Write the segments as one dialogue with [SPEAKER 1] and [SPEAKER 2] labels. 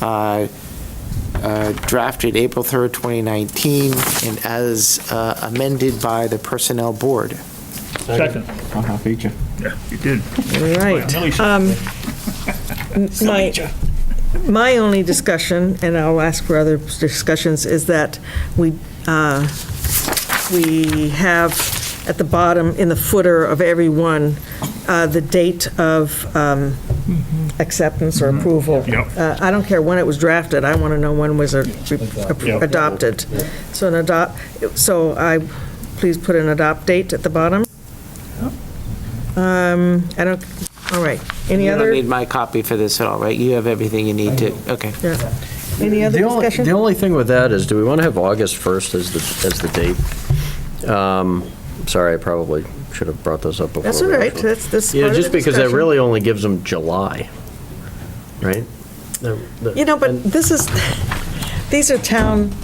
[SPEAKER 1] uh, uh, drafted April 3rd, 2019, and as uh, amended by the Personnel Board.
[SPEAKER 2] Second.
[SPEAKER 3] I'll have you.
[SPEAKER 2] Yeah, you did.
[SPEAKER 4] All right.
[SPEAKER 2] Really should-
[SPEAKER 4] Um, My, my only discussion, and I'll ask for other discussions, is that we, uh, we have at the bottom, in the footer of every one, uh, the date of um, acceptance or approval.
[SPEAKER 2] Mm-hmm. Yep.
[SPEAKER 4] Uh, I don't care when it was drafted, I want to know when was it
[SPEAKER 2] Yep.
[SPEAKER 4] adopted. So an adopt, so I, please put an adopt date at the bottom. Um, I don't, all right. Any
[SPEAKER 1] You
[SPEAKER 4] other?
[SPEAKER 1] don't need my copy for this at all, right? You have everything you need to, okay.
[SPEAKER 4] Yeah. Any other
[SPEAKER 5] The only-
[SPEAKER 4] discussion?
[SPEAKER 5] The only thing with that is, do we want to have August 1st as the, as the date? Um, Sorry, I probably should have brought this up before.
[SPEAKER 4] That's all
[SPEAKER 5] the
[SPEAKER 4] right,
[SPEAKER 5] actual-
[SPEAKER 4] that's, that's
[SPEAKER 5] Yeah,
[SPEAKER 4] part of the
[SPEAKER 5] just because that
[SPEAKER 4] discussion.
[SPEAKER 5] really only gives them July, right?
[SPEAKER 4] You know, but this is, these are town,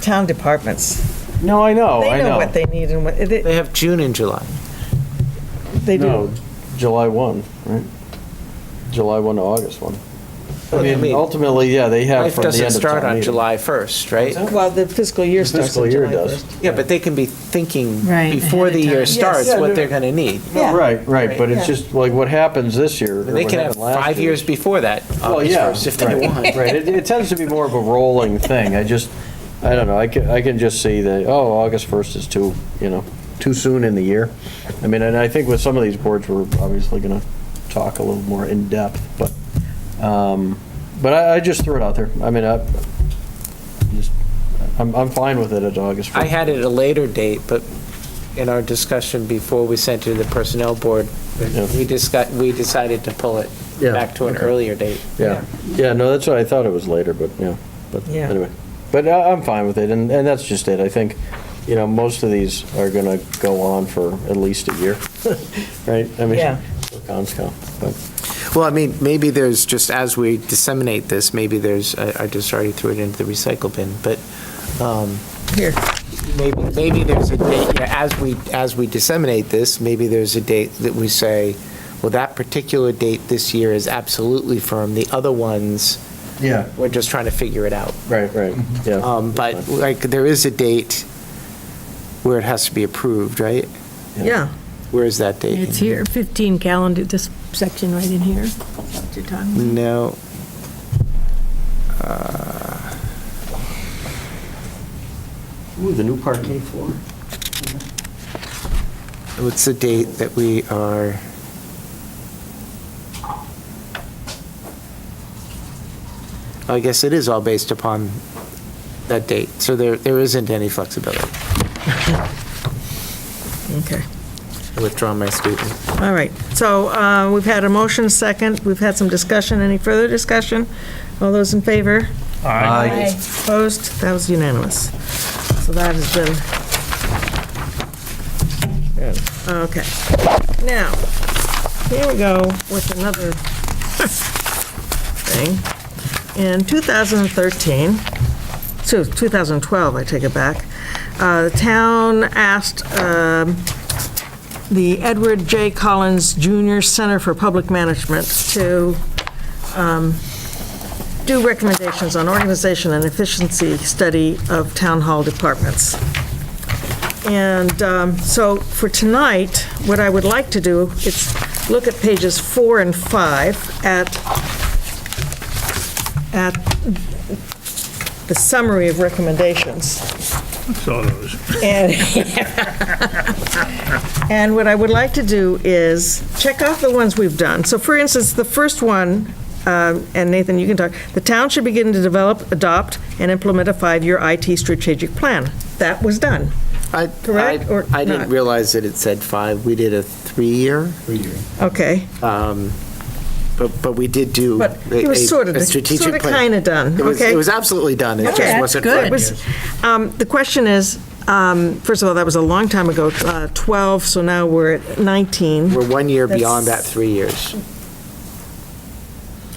[SPEAKER 4] town departments.
[SPEAKER 3] No, I know, Oh, I
[SPEAKER 4] They
[SPEAKER 3] know.
[SPEAKER 4] know what they need and what, they
[SPEAKER 1] They have June and July.
[SPEAKER 4] they do.
[SPEAKER 3] No, July 1, right? July 1 to August 1.
[SPEAKER 1] Well, I
[SPEAKER 3] I mean,
[SPEAKER 1] mean,
[SPEAKER 3] ultimately, yeah, they have
[SPEAKER 1] Life
[SPEAKER 3] from the end of
[SPEAKER 1] doesn't start
[SPEAKER 3] town
[SPEAKER 1] on
[SPEAKER 3] meeting.
[SPEAKER 1] July 1st, right?
[SPEAKER 4] Well, the fiscal year starts
[SPEAKER 3] fiscal
[SPEAKER 4] on
[SPEAKER 3] year
[SPEAKER 4] July
[SPEAKER 3] does.
[SPEAKER 4] 1st.
[SPEAKER 1] Yeah, but they can be thinking
[SPEAKER 6] Right,
[SPEAKER 1] before
[SPEAKER 6] ahead
[SPEAKER 1] the
[SPEAKER 6] of
[SPEAKER 1] year
[SPEAKER 6] time.
[SPEAKER 1] starts
[SPEAKER 3] Yes.
[SPEAKER 1] what
[SPEAKER 3] Yeah,
[SPEAKER 1] they're going to need.
[SPEAKER 4] Yeah.
[SPEAKER 3] Right, right, but
[SPEAKER 4] Yeah.
[SPEAKER 3] it's just like what happens this year.
[SPEAKER 1] And they can have five years before that,
[SPEAKER 3] Well,
[SPEAKER 1] August
[SPEAKER 3] yeah,
[SPEAKER 1] 1st, if they
[SPEAKER 3] right,
[SPEAKER 1] want.
[SPEAKER 3] Right, it, it tends to be more of a rolling thing. I just, I don't know, I can, I can just see that, oh, August 1st is too, you know, too soon in the year. I mean, and I think with some of these boards, we're obviously going to talk a little more in-depth, but, um, but I, I just threw it out there. I mean, I, just, I'm, I'm fine with it at August 1st.
[SPEAKER 1] I had it at a later date, but in our discussion before we sent it to the Personnel Board,
[SPEAKER 3] Yeah.
[SPEAKER 1] we discussed, we decided to pull it
[SPEAKER 3] Yeah,
[SPEAKER 1] back to an
[SPEAKER 3] okay.
[SPEAKER 1] earlier date.
[SPEAKER 3] Yeah, yeah, no, that's what I thought it was later, but, yeah, but
[SPEAKER 4] Yeah.
[SPEAKER 3] anyway. But I- I'm fine with it, and, and that's just it. I think, you know, most of these are gonna go on for at least a year, right? I mean,
[SPEAKER 4] Yeah.
[SPEAKER 3] for Conscom, but,
[SPEAKER 1] Well, I mean, maybe there's, just as we disseminate this, maybe there's, I I just already threw it into the recycle bin, but um,
[SPEAKER 4] Here,
[SPEAKER 1] maybe, maybe there's a date, yeah, as we, as we disseminate this, maybe there's a date that we say, well, that particular date this year is absolutely firm, the other ones,
[SPEAKER 3] yeah,
[SPEAKER 1] we're just trying to figure it out.
[SPEAKER 3] right, right, yeah.
[SPEAKER 1] Um, But like, there is a date where it has to be approved, right?
[SPEAKER 4] yeah,
[SPEAKER 1] Where is that date?
[SPEAKER 6] It's here, 15 calendar, this section right in here. Your time.
[SPEAKER 1] No.
[SPEAKER 5] Ooh, the new parquet floor.
[SPEAKER 1] What's the date that we are? I guess it is all based upon that date, so there, there isn't any flexibility.
[SPEAKER 4] okay.
[SPEAKER 1] I withdraw my statement.
[SPEAKER 4] All right, so uh, we've had a motion, second, we've had some discussion, any further discussion? All those in favor?
[SPEAKER 3] Aye.
[SPEAKER 4] Opposed? That was unanimous. So that has been... Okay. Now, here we go with another thing. In 2013, so 2012, I take it back, uh, the town asked um, the Edward J. Collins Jr. Center for Public Management to do recommendations on organization and efficiency study of town hall departments. And um, so for tonight, what I would like to do is look at pages four and five at, at the summary of recommendations.
[SPEAKER 2] Saw those.
[SPEAKER 4] And, and what I would like to do is check off the ones we've done. So for instance, the first one, um, and Nathan, you can talk, the town should begin to develop, adopt, and implement a five-year IT strategic plan. That was done.
[SPEAKER 1] I-
[SPEAKER 4] Correct
[SPEAKER 1] I-
[SPEAKER 4] or
[SPEAKER 1] I
[SPEAKER 4] not?
[SPEAKER 1] didn't realize that it said five. We did a three-year,
[SPEAKER 4] Okay,
[SPEAKER 1] um, but, but we did do.
[SPEAKER 4] but
[SPEAKER 1] a-
[SPEAKER 4] it
[SPEAKER 1] a-
[SPEAKER 4] was sort of,
[SPEAKER 1] a strategic
[SPEAKER 4] sort of
[SPEAKER 1] plan.
[SPEAKER 4] kind of done,
[SPEAKER 1] It was,
[SPEAKER 4] okay?
[SPEAKER 1] it was absolutely done. It just
[SPEAKER 4] Okay,
[SPEAKER 1] wasn't.
[SPEAKER 4] It was- um, The question is, um, first of all, that was a long time ago, uh, 12, so now we're at 19.
[SPEAKER 1] We're one year beyond that
[SPEAKER 4] That's-
[SPEAKER 1] three years.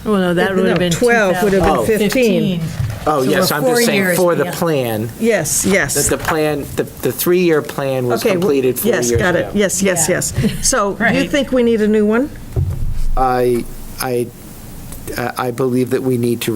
[SPEAKER 6] Oh, no, that would
[SPEAKER 4] No,
[SPEAKER 6] have been
[SPEAKER 4] 12 would have been 15.
[SPEAKER 1] Oh,
[SPEAKER 6] So
[SPEAKER 1] yes,
[SPEAKER 6] we're
[SPEAKER 1] I'm
[SPEAKER 6] four
[SPEAKER 1] just saying
[SPEAKER 6] years
[SPEAKER 1] for the
[SPEAKER 6] beyond.
[SPEAKER 1] plan.
[SPEAKER 4] Yes, yes.
[SPEAKER 1] That the plan, the, the three-year plan was
[SPEAKER 4] Okay, w-
[SPEAKER 1] completed four years ago.
[SPEAKER 4] Yes, got it, yes, yes,
[SPEAKER 6] Yeah.
[SPEAKER 4] yes. So you
[SPEAKER 6] Right.
[SPEAKER 4] think we need a new one?
[SPEAKER 1] I, I, I believe that we need to